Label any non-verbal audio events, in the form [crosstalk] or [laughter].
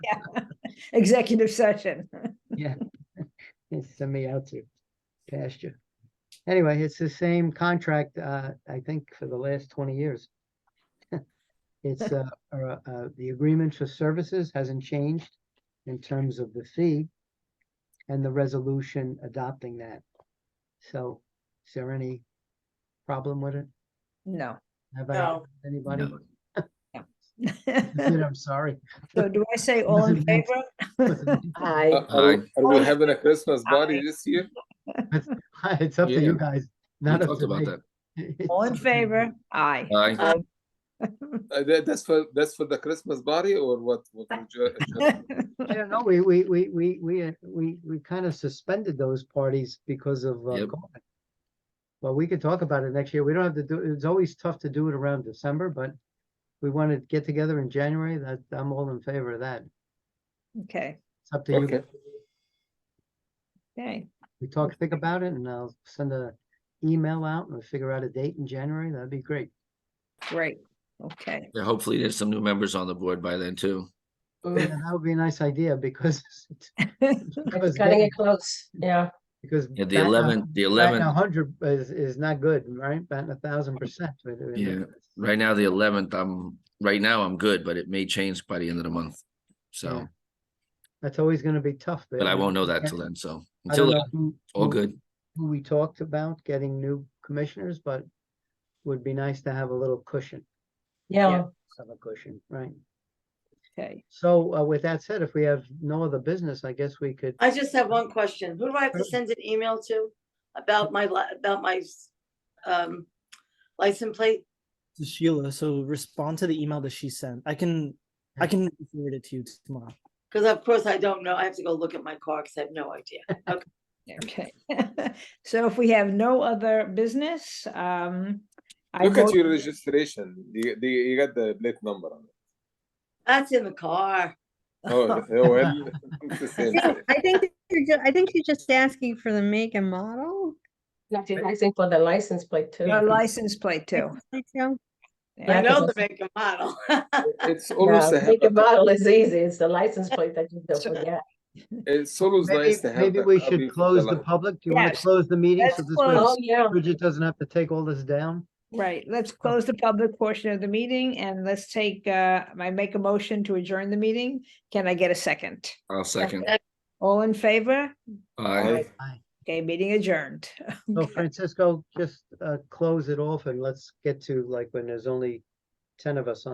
executive session. [laughs] Yeah. [laughs] It sent me out to pasture. Anyway, it's the same contract, uh, I think for the last twenty years. [laughs] It's, uh, uh, uh, the agreement for services hasn't changed in terms of the fee and the resolution adopting that. So is there any problem with it? No. [laughs] Have I, No. offended anybody? No. That's it, [laughs] I'm [laughs] sorry. So do I say all in Wasn't [laughs] meant favor? Uh, Aye. Aye. Are we- are we having a Christmas party Aye. this year? It's up to Yeah. you guys. We Not up talked to about me. that. [laughs] It's All in up to you. favor? Aye. Aye. Uh, that- That's for, that's for the Christmas party or what? What uh, we ju- ju- I don't know, we, we, we, we, we, uh, we, we kind of suspended those parties because of, uh, Yep. COVID. Well, we could talk about it next year. We don't have to do, it's always tough to do it around December, but we want to get together in January, that, I'm all in favor of that. Okay, It's up to you. Okay, okay, We talk, think about it and I'll send a email out and we'll figure out a date in January. That'd be [laughs] great. great, okay. Yeah, Hopefully there's some new members on the board by then too. Mm. Yeah, That would be a nice idea [laughs] because [laughs] It's because Gotta getting- get close, yeah. because Yeah, the batting a- eleventh, the batting eleventh, A hundred is, is not good, right? Batting a thousand percent. but, uh, Yeah. right now, the eleventh, I'm, right now I'm good, but it may change by the end of the month. So, Yeah. That's always gonna be tough. but I uh, won't know that yeah. till then, so. I don't Until, know then, who- all who- good. Who we talked about getting new commissioners, but would be nice to have a little cushion, Yeah, of a cushion, right? Okay, So uh, with that said, if we have no other business, I guess we could, I just have one question. Who do I have to Sure. send an email to about my, li- about my um, license plate? to Sheila. So respond to the email that she sent. I can I Yeah. can forward it to you tomorrow. Because of course I don't know. I have to go look at my car because I have no idea. okay. [laughs] So if we have no other business, um. I look at vote- your registration. You, the- you got the plate number [laughs] on it. That's in the car. Oh, oh, well, it's the [laughs] same Yeah, thing. I think you're just, I think she's just asking for the make and model. I think I think for the license plate too. Our license plate too. I feel. Yeah. [laughs] I Yeah, know 'cause the make and model. [laughs] It's always, Yeah, a Make a habit. bottle is easy, it's the license plate that you don't So- forget. it's always maybe, nice to have. maybe a we copy should for close the li- public. Do you want to Yes. close the meeting? Let's So this close. Oh, way yeah, Bridget doesn't have to take all this down? Right, let's close the public portion of the meeting and let's take, uh, I make a motion to adjourn the meeting. Can I get a second? I'll second. All in favor? Aye. Okay, meeting adjourned. So Francisco, just uh, close it off and let's get to like when there's only ten of us on.